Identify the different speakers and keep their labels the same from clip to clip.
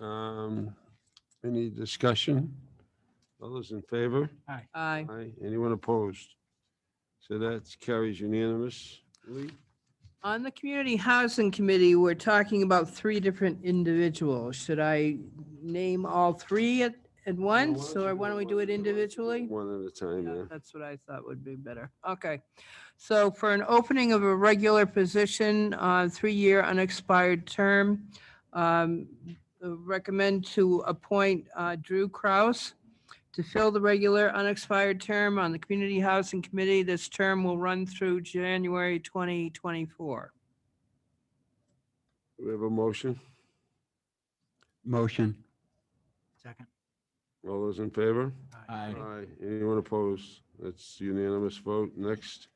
Speaker 1: Um, Any discussion? All those in favor?
Speaker 2: Aye.
Speaker 1: Aye. Anyone opposed? So that carries unanimously.
Speaker 2: On the Community Housing Committee, we're talking about three different individuals. Should I name all three at, at once, or why don't we do it individually?
Speaker 1: One at a time,
Speaker 2: Yeah,
Speaker 1: yeah.
Speaker 2: That's what I thought would be better. Okay. So for an opening of a regular position, uh, three-year unexpired term, um, recommend to appoint uh, Drew Kraus to fill the regular unexpired term on the Community Housing Committee. This term will run through January 2024.
Speaker 1: We have a motion.
Speaker 3: Motion.
Speaker 4: Second.
Speaker 1: All those in favor?
Speaker 3: Aye.
Speaker 1: Aye. Anyone opposed? That's unanimous vote. Next.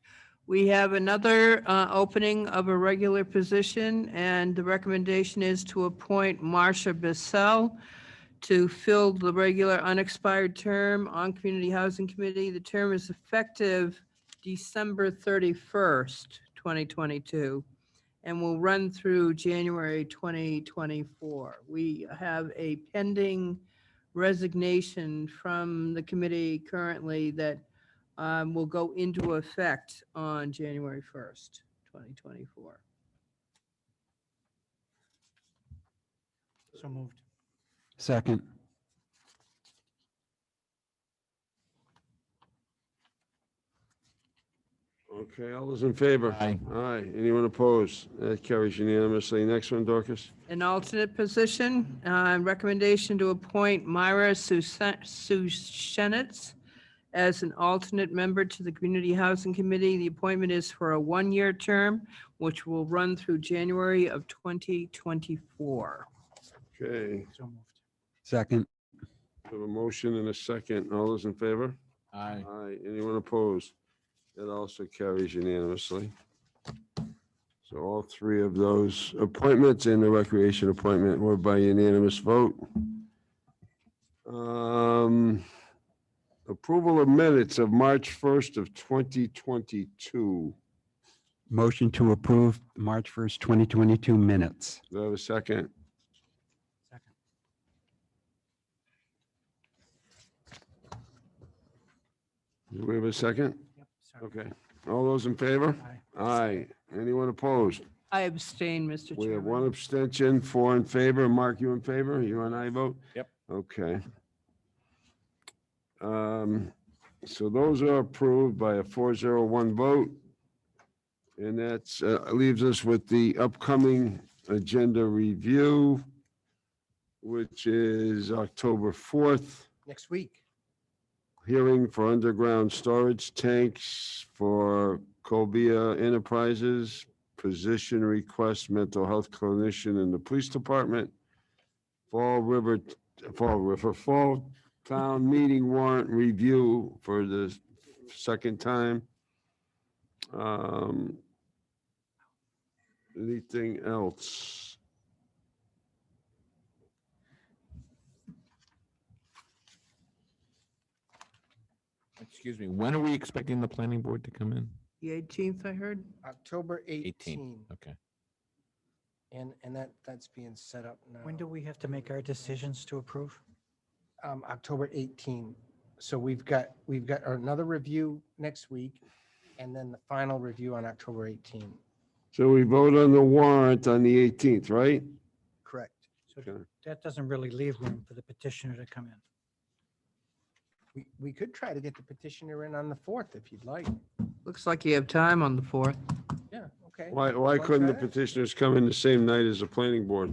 Speaker 2: We have another uh, opening of a regular position, and the recommendation is to appoint Marcia Bissell to fill the regular unexpired term on Community Housing Committee. The term is effective December 31st, 2022, and will run through January 2024. We have a pending resignation from the committee currently that um, will go into effect on January 1st, 2024.
Speaker 4: So moved.
Speaker 3: Second.
Speaker 1: Okay, all those in favor?
Speaker 3: Aye.
Speaker 1: Aye. Anyone opposed? That carries unanimously. Next one, Dorcas.
Speaker 2: An alternate position, uh, recommendation to appoint Myra Sushenitz as an alternate member to the Community Housing Committee. The appointment is for a one-year term, which will run through January of 2024.
Speaker 1: Okay,
Speaker 4: So moved.
Speaker 3: Second.
Speaker 1: we have a motion and a second. All those in favor?
Speaker 3: Aye.
Speaker 1: Aye. Anyone opposed? That also carries unanimously. So all three of those appointments and the recreation appointment were by unanimous vote. Um, Approval of minutes of March 1st of 2022.
Speaker 3: Motion to approve March 1st, 2022 minutes.
Speaker 1: Do I have a second?
Speaker 4: Second.
Speaker 1: Do we have a second?
Speaker 4: Yep. Sorry.
Speaker 1: Okay. All those in favor?
Speaker 4: Aye.
Speaker 1: Aye. Anyone opposed?
Speaker 2: I abstain, Mr.
Speaker 1: We have
Speaker 2: Chairman.
Speaker 1: one abstention, four in favor. Mark, you in favor? You and I vote?
Speaker 5: Yep.
Speaker 1: Okay. Um, So those are approved by a four zero one vote. And that's, uh, leaves us with the upcoming agenda review, which is October fourth,
Speaker 4: Next week.
Speaker 1: hearing for underground storage tanks for Cobia Enterprises, position request, mental health clinician in the police department, Fall River, Fall River, Fall Town Meeting warrant review for the second time. Um, Anything else?
Speaker 5: Excuse me, when are we expecting the planning board to come in?
Speaker 2: The 18th, I heard.
Speaker 6: October 18.
Speaker 5: Okay.
Speaker 6: And, and that, that's being set up now.
Speaker 4: When do we have to make our decisions to approve?
Speaker 6: Um, October 18. So we've got, we've got another review next week and then the final review on October 18.
Speaker 1: So we vote on the warrant on the eighteenth, right?
Speaker 6: Correct.
Speaker 4: So
Speaker 1: Sure.
Speaker 4: that doesn't really leave room for the petitioner to come in.
Speaker 6: We, we could try to get the petitioner in on the 4th if you'd like.
Speaker 2: Looks like you have time on the 4th.
Speaker 6: Yeah, okay.
Speaker 1: Why, why
Speaker 6: Why
Speaker 1: couldn't the
Speaker 6: not?
Speaker 1: petitioners come in the same night as the planning board?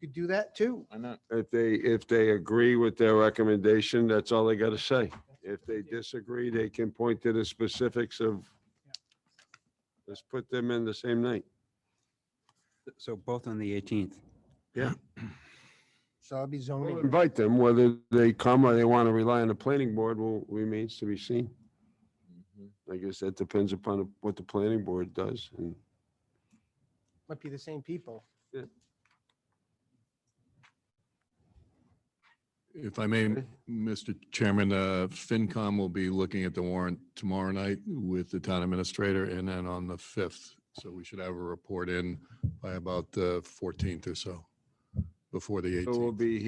Speaker 6: You could do that too.
Speaker 5: Why not?
Speaker 1: If they, if they agree with their recommendation, that's all they got to say. If they disagree, they can point to the specifics of, let's put them in the same night.
Speaker 3: So both on the 18th.
Speaker 6: So I'll be
Speaker 1: We'll
Speaker 6: zoning.
Speaker 1: invite them, whether they come or they want to rely on the planning board will, remains to be seen.
Speaker 5: Mm-hmm.
Speaker 1: I guess that depends upon what the planning board does. And
Speaker 6: Might be the same people.
Speaker 7: If I may,
Speaker 1: Okay.
Speaker 7: Mr. Chairman, uh, FinCom will be looking at the warrant tomorrow night with the town administrator and then on the 5th. So we should have a uh, report in by about the 14th or so, before the 18th.
Speaker 1: So we'll be